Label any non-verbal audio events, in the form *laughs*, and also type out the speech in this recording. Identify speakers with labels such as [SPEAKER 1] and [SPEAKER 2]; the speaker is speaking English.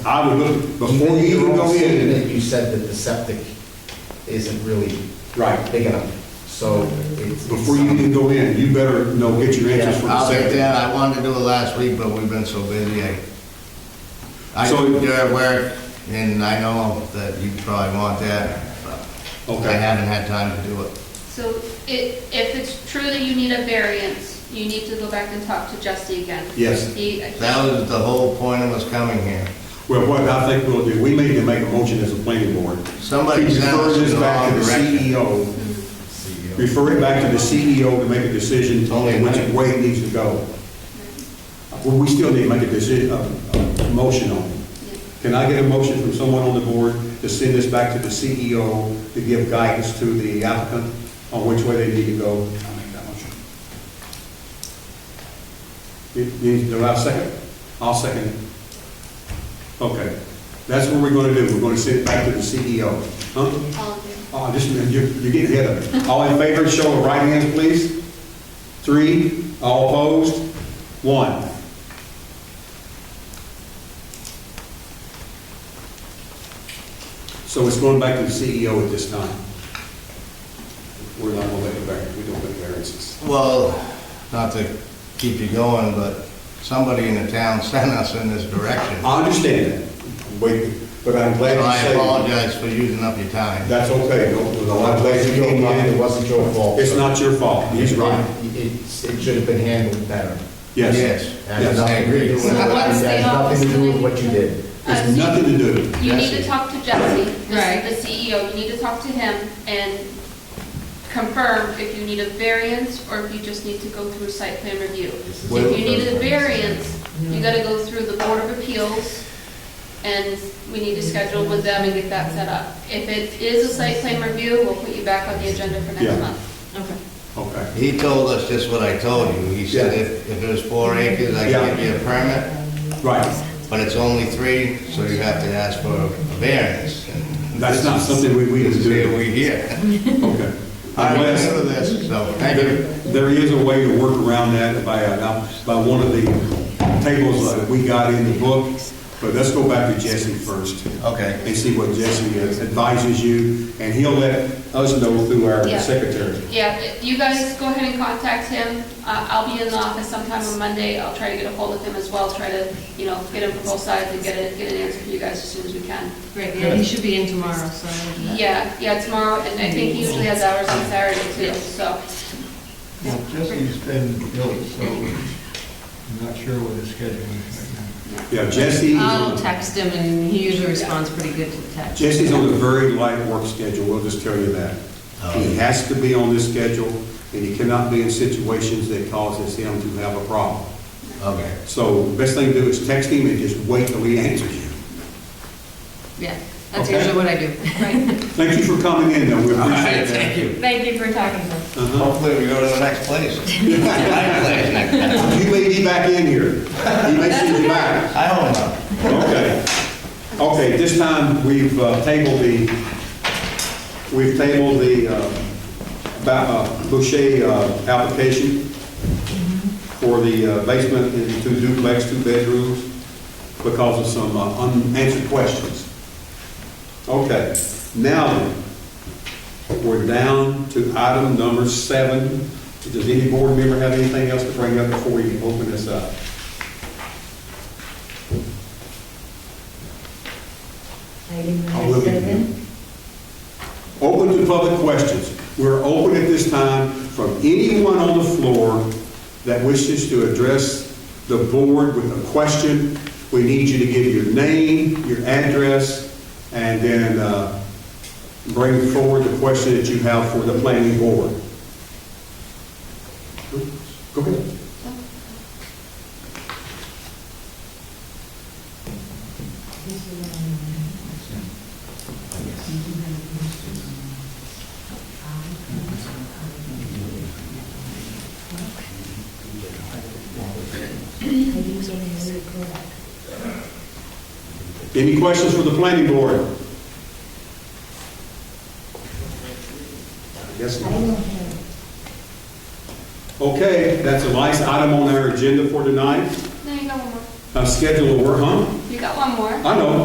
[SPEAKER 1] I would look, before you even go in,
[SPEAKER 2] You said that the septic isn't really
[SPEAKER 1] right,
[SPEAKER 2] big enough, so it's.
[SPEAKER 1] before you even go in, you better know, get your answers from the
[SPEAKER 3] I'll get
[SPEAKER 1] septic.
[SPEAKER 3] that, I wanted to do it last week, but we've been so busy, I, I
[SPEAKER 1] So-
[SPEAKER 3] do your work, and I know that you probably want that, but I
[SPEAKER 1] Okay.
[SPEAKER 3] haven't had time to do it.
[SPEAKER 4] So it, if it's true that you need a variance, you need to go back and talk to Jesse again.
[SPEAKER 1] Yes.
[SPEAKER 4] He-
[SPEAKER 3] That was the whole point of us coming here.
[SPEAKER 1] Well, what I think we'll do, we may need to make a motion as a planning board.
[SPEAKER 3] Somebody
[SPEAKER 1] To
[SPEAKER 3] sent us
[SPEAKER 1] refer this
[SPEAKER 3] in the E
[SPEAKER 1] back to
[SPEAKER 3] wrong
[SPEAKER 1] the
[SPEAKER 3] direction.
[SPEAKER 1] CEO, refer it back to the CEO to make a decision on which way it needs to go. Well, we still need to make a decision, a, a motion on it. Can I get a motion from someone on the board to send this back to the CEO to give guidance to the applicant on which way they need to go? I'll make that motion. Do I have a second? I'll second it. Okay, that's what we're gonna do, we're gonna send it back to the CEO. Huh?
[SPEAKER 4] All in favor?
[SPEAKER 1] Oh, just, a minute. you're, you're getting ahead of me. All in favor, show of right hands, please. Three, all opposed, one. So it's going back to the CEO at this time. We're not gonna make a variance, we don't make variances.
[SPEAKER 3] Well, not to keep you going, but somebody in the town *laughs* sent us in this direction.
[SPEAKER 1] I understand that, Wait, but I'm glad
[SPEAKER 3] So I
[SPEAKER 1] you say that.
[SPEAKER 3] apologize for using up your time.
[SPEAKER 1] That's okay, no, no, I'm glad you don't
[SPEAKER 2] It
[SPEAKER 1] mind.
[SPEAKER 2] wasn't your fault.
[SPEAKER 1] It's not your fault, he's right.
[SPEAKER 2] It- It, it should have been handled better.
[SPEAKER 1] Yes.
[SPEAKER 3] Yes.
[SPEAKER 2] That has
[SPEAKER 1] Yes.
[SPEAKER 2] nothing to do with-
[SPEAKER 4] So what's the
[SPEAKER 2] that has nothing to do with
[SPEAKER 4] office
[SPEAKER 2] what you did.
[SPEAKER 4] Uh,
[SPEAKER 1] It's nothing to do.
[SPEAKER 4] You need
[SPEAKER 3] Jesse.
[SPEAKER 4] to talk to Jesse, the
[SPEAKER 5] Right.
[SPEAKER 4] the CEO, you need to talk to him and confirm if you need a variance or if you just need to go through site plan review. If
[SPEAKER 3] Well-
[SPEAKER 4] you need a variance, you gotta go through the Board of Appeals and we need to schedule with them and get that set up. If it is a site plan review, we'll put you back on the agenda for
[SPEAKER 1] Yeah.
[SPEAKER 4] next month.
[SPEAKER 5] Okay.
[SPEAKER 1] Okay.
[SPEAKER 3] He told us just what I told you. He said
[SPEAKER 1] Yeah.
[SPEAKER 3] if, if it was four acres, I
[SPEAKER 1] Yeah.
[SPEAKER 3] could give you a permit,
[SPEAKER 1] Right.
[SPEAKER 3] but it's only three, so you have to ask for a variance. And
[SPEAKER 1] That's
[SPEAKER 3] this
[SPEAKER 1] not
[SPEAKER 3] is-
[SPEAKER 1] something we, we
[SPEAKER 3] This
[SPEAKER 1] just
[SPEAKER 3] is here,
[SPEAKER 1] do.
[SPEAKER 3] we here.
[SPEAKER 1] Okay.
[SPEAKER 3] I
[SPEAKER 1] Unless-
[SPEAKER 3] remember this, so thank
[SPEAKER 1] There-
[SPEAKER 3] you.
[SPEAKER 1] There is a way to work around that by, uh, now, by one of the tables that we got in the book, but let's go back to Jesse first
[SPEAKER 3] Okay.
[SPEAKER 1] and see what Jesse advises you, and he'll let us know through our
[SPEAKER 4] Yeah.
[SPEAKER 1] secretary.
[SPEAKER 4] Yeah, if you guys go ahead and contact him. Uh, I'll be in the office sometime on Monday. I'll try to get a hold of him as well, try to, you know, get him from both sides and get a, get an answer for you guys as soon as we can.
[SPEAKER 5] Great, yeah, he should be in tomorrow, so.
[SPEAKER 4] Yeah, yeah, tomorrow, and I think he usually has hours on Saturday too, so.
[SPEAKER 6] Well, Jesse's been ill, so I'm not sure what his schedule is right
[SPEAKER 1] Yeah, Jesse. is on-
[SPEAKER 5] I'll text him, and he usually responds pretty good to the text.
[SPEAKER 1] Jesse's on a very light work schedule, we'll just tell you that. He has to be on this schedule, and he cannot be in situations that causes him to have a problem.
[SPEAKER 3] Okay.
[SPEAKER 1] So best thing to do is text him and just wait till he answers you.
[SPEAKER 5] Yeah, that's
[SPEAKER 1] Okay.
[SPEAKER 5] usually what I do. Right.
[SPEAKER 1] Thank you for coming in, though, we appreciate that.
[SPEAKER 3] you.
[SPEAKER 5] Thank you for talking to us.
[SPEAKER 1] Uh-huh.
[SPEAKER 3] Hopefully we go to the next place. *laughs* My place next time.
[SPEAKER 1] You may be back in here. He may send you back.
[SPEAKER 3] I hope not.
[SPEAKER 1] Okay. Okay, this time, we've uh, tabled the, we've tabled the uh, ba- uh, Boucher uh, application for the uh, basement and two duplex, two bedrooms, because of some uh, unanswered questions. Okay, now, then, we're down to item number seven. Does any board member have anything else to bring up before we open this up?
[SPEAKER 7] Item
[SPEAKER 1] I will
[SPEAKER 7] number
[SPEAKER 1] be.
[SPEAKER 7] seven,
[SPEAKER 1] Open to public questions. We're open at this time from anyone on the floor that wishes to address the board with a question. We need you to give your name, your address, and then uh, bring forward the question that you have for the planning board. Go ahead.
[SPEAKER 7] I usually record.
[SPEAKER 1] Any questions for the planning board? I guess
[SPEAKER 7] I
[SPEAKER 1] not.
[SPEAKER 7] don't have,
[SPEAKER 1] Okay, that's a nice item on our agenda for tonight.
[SPEAKER 4] There you go, one more. uh, schedule a work, huh?
[SPEAKER 1] You got one more.
[SPEAKER 4] I know,